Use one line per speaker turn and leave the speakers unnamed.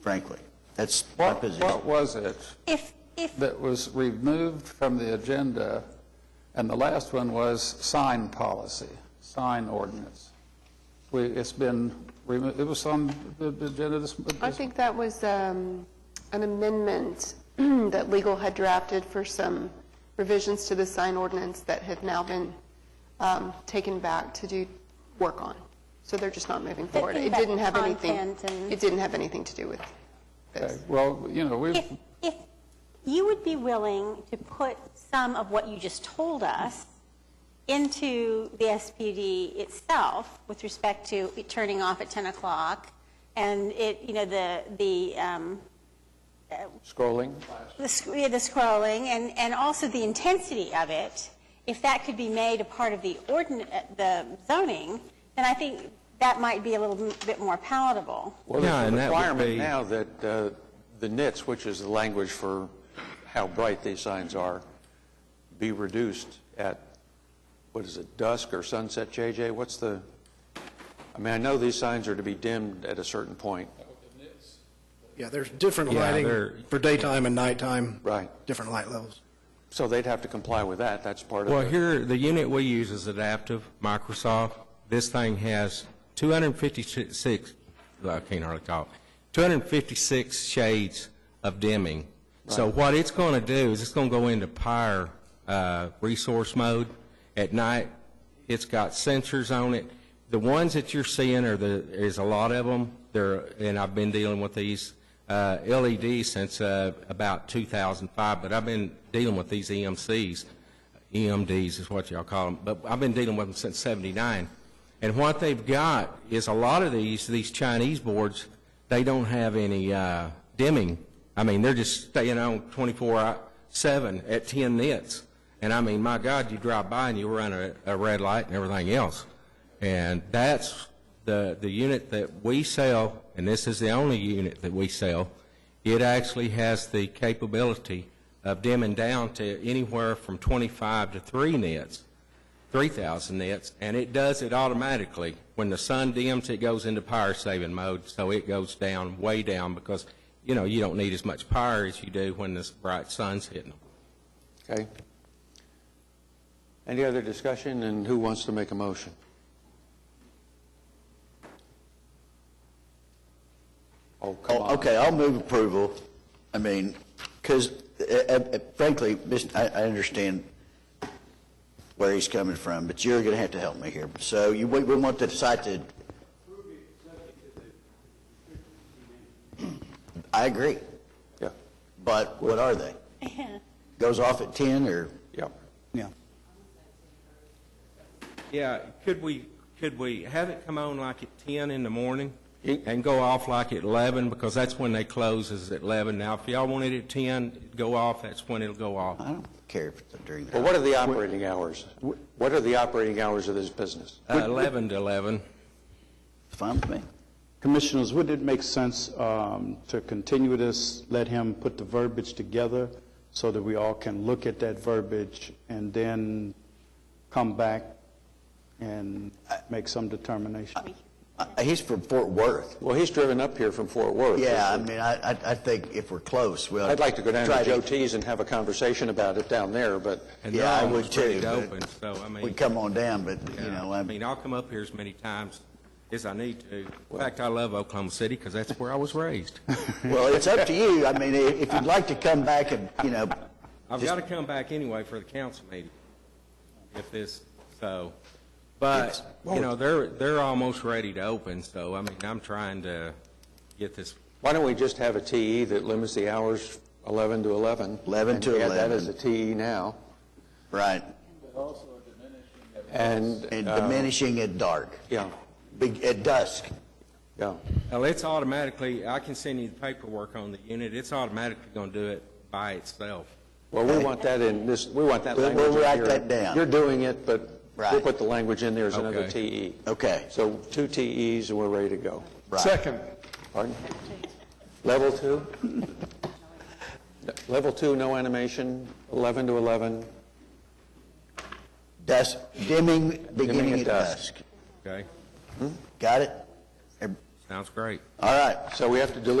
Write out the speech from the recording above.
frankly. That's my
What,
position.
what was it
If, if,
that was removed from the agenda? And the last one was sign policy, sign ordinance. We, it's been, remo- it was on the the agenda this,
I think that was um, an amendment that legal had drafted for some revisions to the sign ordinance that have now been um, taken back to do work on. So they're just not moving forward.
Thinking
It
about
didn't have anything,
content and-
it didn't have anything to do with
Okay,
this.
well, you know, we've,
if, if you would be willing to put some of what you just told us into the SPD itself with respect to it turning off at 10 o'clock and it, you know, the, the, um,
scrolling.
the sc- yeah, the scrolling and, and also the intensity of it, if that could be made a part of the ordin, uh, the zoning, then I think that might be a little m- bit more palatable.
Well,
Yeah,
there's a
and that would
requirement
be-
now that uh, the NITS, which is the language for how bright these signs are, be reduced at, what is it, dusk or sunset, JJ? What's the, I mean, I know these signs are to be dimmed at a certain point.
Yeah, there's different
Yeah,
lighting
they're-
for daytime and nighttime.
Right.
Different light levels.
So they'd have to comply with that, that's part of
Well,
it.
here, the unit we use is adaptive, Microsoft. This thing has 256, I can't hardly talk, 256 shades of dimming. So what it's going to do is it's going to go into power uh, resource mode. At night, it's got sensors on it. The ones that you're seeing are the, there's a lot of them, they're, and I've been dealing with these uh, LED since uh, about 2005, but I've been dealing with these E EMCs. EMDs E is what y'all call them, but I've been dealing with them since '79. And what they've got is a lot of these, these Chinese boards, they don't have any uh, dimming. I mean, they're just staying on 24/7 at 10 nits. And I mean, my God, you drive by and you run a, a red light and everything else. And that's the, the unit that we sell, and this is the only unit that we sell, it actually has the capability of dimming down to anywhere from 25 to 3 nits, 3,000 nits, and it does it automatically. When the sun dims, it goes into power saving mode, so it goes down, way down, because, you know, you don't need as much power as you do when this bright sun's hitting them.
Okay? Any other discussion, and who wants to make a motion? Oh, come
Oh,
on.
Okay, I'll move approval. I mean, because frankly, Miss- I I understand where he's coming from, but you're going to have to help me here. So you, we we want the site to... I agree,
Yeah,
but what are they? Goes off at 10 or,
yeah.
yeah.
Yeah, could we, could we have it come on like at 10 in the morning
You-
and go off like at 11, because that's when they close is at 11. Now, if y'all want it at 10, it'd go off, that's when it'll go off.
I don't care if it's during the...
Well, what are the operating hours? What are the operating hours of this business?
Uh, 11 to 11.
Fine with me.
Commissioners, would it make sense um, to continue this, let him put the verbiage together so that we all can look at that verbiage and then come back and make some determination?
Uh, He's from Fort Worth.
Well, he's driven up here from Fort Worth.
Yeah, I mean, I, I- I think if we're close, we'll...
I'd like to go down
try
to Joe T's and have a conversation about it down there, but
and
Yeah, I
they're
would
almost ready
too.
to
but
open, so, I mean-
We'd come on down, but, you know,
I
I'm...
mean, I'll come up here as many times as I need to. In fact, I love Oklahoma City, because that's where I was raised.
Well, it's up to you. I mean, i- if you'd like to come back and, you know,
I've got to come back anyway for the council meeting, if this, so, but, you know, they're, they're almost ready to open, so, I mean, I'm trying to get this
why don't we just have a TE that limits the hours 11 to 11?
11 to
And we add that
11.
as a TE now,
right,
and...
and
uh,
diminishing at dark,
Yeah,
big, at dusk.
yeah.
Well, it's automatically, I can send you the paperwork on the unit, it's automatically going to do it by itself.
Well, we want that in this, we want that
We'll-
language in
we'll write
here.
that down.
You're doing it, but we'll
Right.
put the language in there as another E.
Okay.
TE.
Okay.
So two TEs, and we're ready to go.
Right.
Pardon? Level two? No, Level two, no animation, 11 to 11,
Dusk, dimming, beginning at
at
dusk.
dusk.
Okay?
Got it? Ev-
Sounds great.
All right.
so we have to delete